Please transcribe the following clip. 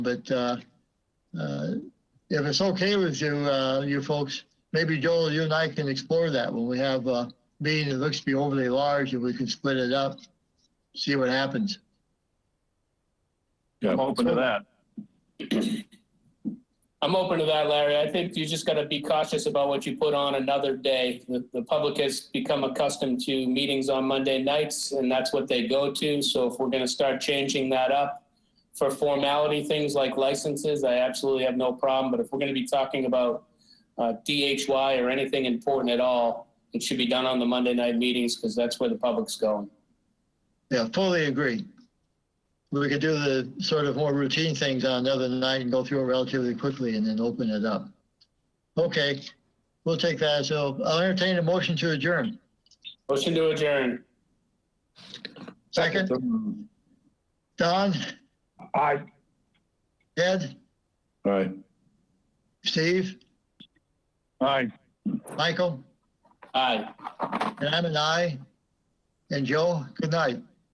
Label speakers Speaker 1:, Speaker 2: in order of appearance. Speaker 1: But uh, uh, if it's okay with you, uh, you folks, maybe Joel, you and I can explore that when we have a meeting that looks to be overly large and we can split it up, see what happens.
Speaker 2: I'm open to that.
Speaker 3: I'm open to that, Larry. I think you just got to be cautious about what you put on another day. The, the public has become accustomed to meetings on Monday nights, and that's what they go to. So if we're going to start changing that up for formality things like licenses, I absolutely have no problem. But if we're going to be talking about uh, DHY or anything important at all, it should be done on the Monday night meetings because that's where the public's going.
Speaker 1: Yeah, fully agree. We could do the sort of more routine things on another night and go through it relatively quickly and then open it up. Okay, we'll take that. So I'll entertain a motion to adjourn.
Speaker 3: Motion to adjourn.
Speaker 1: Second, Don,
Speaker 4: Aye.
Speaker 1: Ed,
Speaker 2: All right.
Speaker 1: Steve,
Speaker 4: Aye.
Speaker 1: Michael,
Speaker 3: Aye.
Speaker 1: and I'm an I. And Joe, good night.